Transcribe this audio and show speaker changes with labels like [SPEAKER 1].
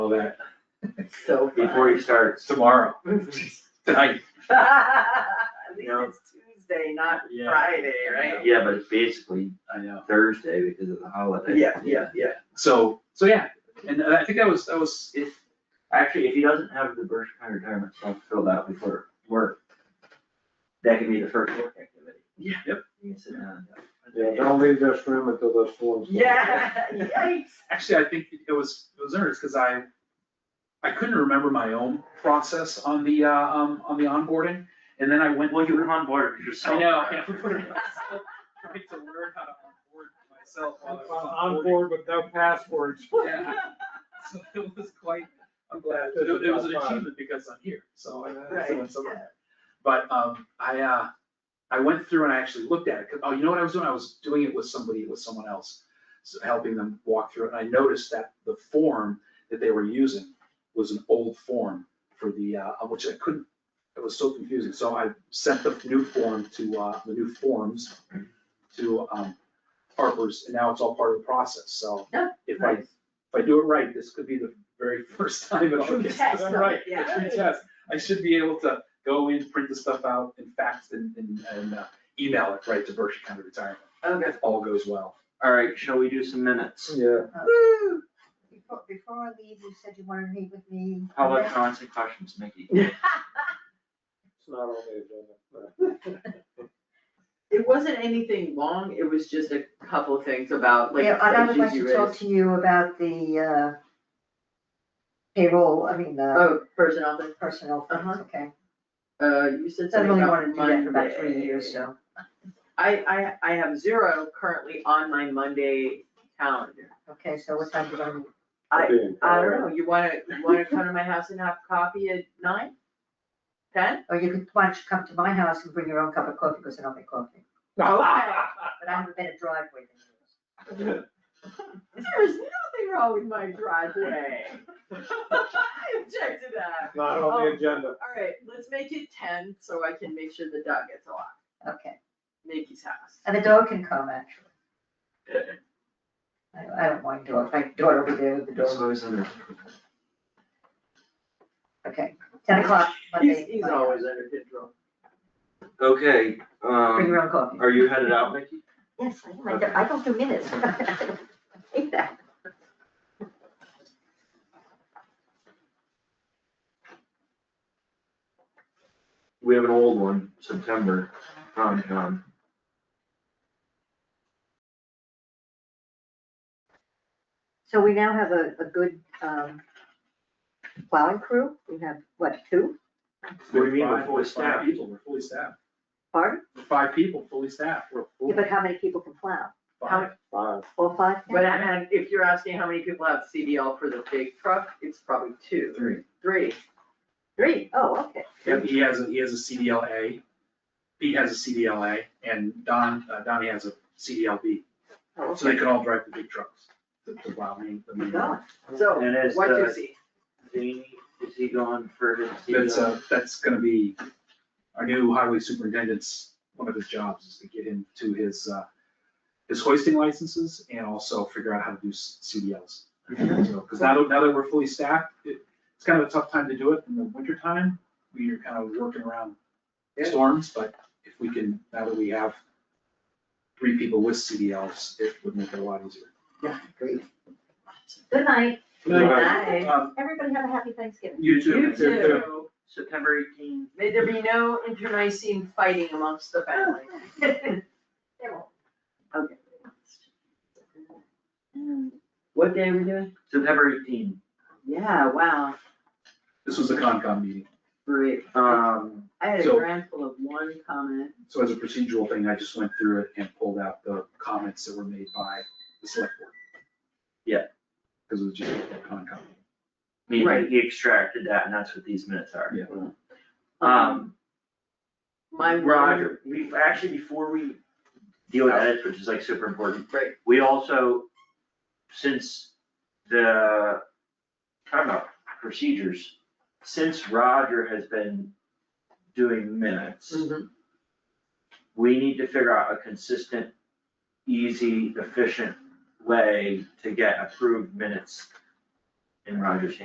[SPEAKER 1] that
[SPEAKER 2] So.
[SPEAKER 1] before he starts tomorrow, tonight.
[SPEAKER 2] At least
[SPEAKER 1] Yeah.
[SPEAKER 2] it's Tuesday, not
[SPEAKER 1] Yeah.
[SPEAKER 2] Friday, right?
[SPEAKER 3] Yeah, but it's basically
[SPEAKER 1] I know.
[SPEAKER 3] Thursday because of the holiday.
[SPEAKER 2] Yeah, yeah, yeah.
[SPEAKER 1] So, so yeah, and I think that was, that was,
[SPEAKER 3] If, actually, if he doesn't have the Berkshire County retirement stuff filled out before work, that can be the first work activity.
[SPEAKER 1] yeah, yep.
[SPEAKER 3] You can sit down. and-
[SPEAKER 4] Yeah, don't leave this room until this one's. done.
[SPEAKER 2] Yeah, yikes.
[SPEAKER 1] Actually, I think it was, it was nervous, cause I, I couldn't remember my own process on the, uh, um, on the onboarding. And then I went.
[SPEAKER 3] Well, you were on board with
[SPEAKER 1] I
[SPEAKER 3] yourself.
[SPEAKER 1] know, yeah, we put it myself, trying to learn how to onboard myself while I was
[SPEAKER 4] On on board with no passwords.
[SPEAKER 1] Yeah. So it was quite, I'm glad, it it was an achievement because I'm here, so I, so
[SPEAKER 2] Right,
[SPEAKER 1] it's over.
[SPEAKER 2] yeah.
[SPEAKER 1] But, um, I, uh, I went through and I actually looked at it, 'cause- oh, you know what I was doing, I was doing it with somebody, with someone else, so helping them walk through it, and I noticed that the form that they were using was an old form for the, uh, which I couldn't, it was so confusing, so I sent the new form to, uh, the new forms to, um, Harper's, and now it's all part of the process, so.
[SPEAKER 2] Yeah.
[SPEAKER 1] If I if I do it right, this could be the very first time it all
[SPEAKER 2] True
[SPEAKER 1] gets
[SPEAKER 2] test
[SPEAKER 1] done
[SPEAKER 2] of it,
[SPEAKER 1] right,
[SPEAKER 2] yeah.
[SPEAKER 1] a true test. I should be able to go in, print the stuff out, and fax and, and, and uh, email it right to Berkshire County Retirement,
[SPEAKER 2] Okay.
[SPEAKER 1] if all goes well.
[SPEAKER 3] All right, shall we do some minutes?
[SPEAKER 4] Yeah,
[SPEAKER 2] Woo.
[SPEAKER 5] Before, before I leave, you said you wanted to meet with me.
[SPEAKER 3] How about comments and questions, Mickey?
[SPEAKER 4] it's not on the agenda. no.
[SPEAKER 2] It wasn't anything long, it was just a couple of things about like.
[SPEAKER 5] Yeah, and I would
[SPEAKER 2] issues
[SPEAKER 5] like
[SPEAKER 2] you
[SPEAKER 5] to talk
[SPEAKER 2] raised.
[SPEAKER 5] to you about the uh, payroll, I mean, the
[SPEAKER 2] Oh, personnel thing,
[SPEAKER 5] personnel things,
[SPEAKER 2] Uh-huh.
[SPEAKER 5] okay?
[SPEAKER 2] uh, you said
[SPEAKER 5] I've
[SPEAKER 2] something
[SPEAKER 5] only
[SPEAKER 2] about
[SPEAKER 5] wanted to do that for about
[SPEAKER 2] Monday.
[SPEAKER 5] three years, so.
[SPEAKER 2] I, I, I have zero currently on my Monday calendar.
[SPEAKER 5] Okay, so what time do you want to meet?
[SPEAKER 2] I-
[SPEAKER 4] Being
[SPEAKER 2] I
[SPEAKER 4] tired.
[SPEAKER 2] don't know, you wanna, you wanna come to my house and have coffee at nine? Ten?
[SPEAKER 5] Or you could, why don't you come to my house and bring your own cup of coffee, because I don't make coffee. But Oh, I have a better driveway than yours.
[SPEAKER 2] There is nothing wrong with my driveway. I object to that.
[SPEAKER 4] Not on the agenda.
[SPEAKER 2] All right, let's make it ten so I can make sure the dog gets a lot.
[SPEAKER 5] Okay,
[SPEAKER 2] Nikki's house.
[SPEAKER 5] and the dog can come, actually. I, I don't mind dogs, my daughter will be there with the
[SPEAKER 3] It's
[SPEAKER 5] dog.
[SPEAKER 3] always under.
[SPEAKER 5] Okay, ten o'clock, Monday.
[SPEAKER 2] He's, he's
[SPEAKER 5] my house.
[SPEAKER 2] always under control.
[SPEAKER 3] Okay,
[SPEAKER 5] Bring
[SPEAKER 3] um,
[SPEAKER 5] your own coffee.
[SPEAKER 3] are you headed out, Mickey?
[SPEAKER 5] Yes, I am. I don't- I don't do minutes. I Hate that.
[SPEAKER 3] We have an old one, September, Tom John.
[SPEAKER 5] So we now have a, a good, um, plowing crew. We have, what, two?
[SPEAKER 3] What do you mean we're
[SPEAKER 1] Five-
[SPEAKER 3] fully
[SPEAKER 1] Five
[SPEAKER 3] staffed?
[SPEAKER 1] people, we're fully staffed.
[SPEAKER 5] Pardon?
[SPEAKER 1] We're Five people, fully staffed, we're
[SPEAKER 5] Yeah,
[SPEAKER 1] full.
[SPEAKER 5] but how many people can plow?
[SPEAKER 1] Five.
[SPEAKER 4] Fine.
[SPEAKER 5] All five? now?
[SPEAKER 2] But I- and if you're asking how many people have CDL for the big truck, it's probably two,
[SPEAKER 3] Three.
[SPEAKER 2] three.
[SPEAKER 5] Three. Oh, okay.
[SPEAKER 1] Yep, he has, a he has a CDLA, Pete has a CDLA, and Don, uh, Donnie has a CDLB,
[SPEAKER 5] Oh,
[SPEAKER 1] so they
[SPEAKER 5] okay.
[SPEAKER 1] can all drive the big trucks. to- to plow main- the main road.
[SPEAKER 5] Going.
[SPEAKER 2] So,
[SPEAKER 3] And is,
[SPEAKER 2] what do Oh, you
[SPEAKER 3] uh,
[SPEAKER 2] see?
[SPEAKER 3] Jamie, is he going for his?
[SPEAKER 1] That's,
[SPEAKER 3] CDL?
[SPEAKER 1] uh, that's gonna be our new highway superintendent's, one of his jobs is to get him to his, uh, his hoisting licenses and also figure out how to do s- CDLs. So, Cause now, that- now that we're fully staffed, it, it's kind of a tough time to do it in the winter time. We are kind of working around storms, but if we can, now that we have three people with CDLs, it would make it a lot easier.
[SPEAKER 5] Good night.
[SPEAKER 3] Good
[SPEAKER 5] night.
[SPEAKER 1] Um,
[SPEAKER 5] Everybody have a happy Thanksgiving.
[SPEAKER 1] You too.
[SPEAKER 2] You too.
[SPEAKER 3] September eighteenth.
[SPEAKER 2] May there be no internecine fighting amongst the family. Okay. What day are we doing?
[SPEAKER 3] September eighteenth.
[SPEAKER 2] Yeah, wow,
[SPEAKER 1] This was a Concom meeting.
[SPEAKER 2] great.
[SPEAKER 3] Um,
[SPEAKER 2] I had a
[SPEAKER 1] So-
[SPEAKER 2] grandful of one comment.
[SPEAKER 1] So as a procedural thing, I just went through it and pulled out the comments that were made by the select board.
[SPEAKER 3] Yeah.
[SPEAKER 1] Because it was just a Concom.
[SPEAKER 3] meaning
[SPEAKER 2] Right.
[SPEAKER 3] he extracted that and that's what these minutes are.
[SPEAKER 1] Yeah.
[SPEAKER 3] Um,
[SPEAKER 2] My one-
[SPEAKER 3] Roger, we, actually, before we deal with edits, which is like super important,
[SPEAKER 2] Right,
[SPEAKER 3] we also, since the, talking about procedures, since Roger has been doing minutes, we need to figure out a consistent, easy, efficient way to get approved minutes in Roger's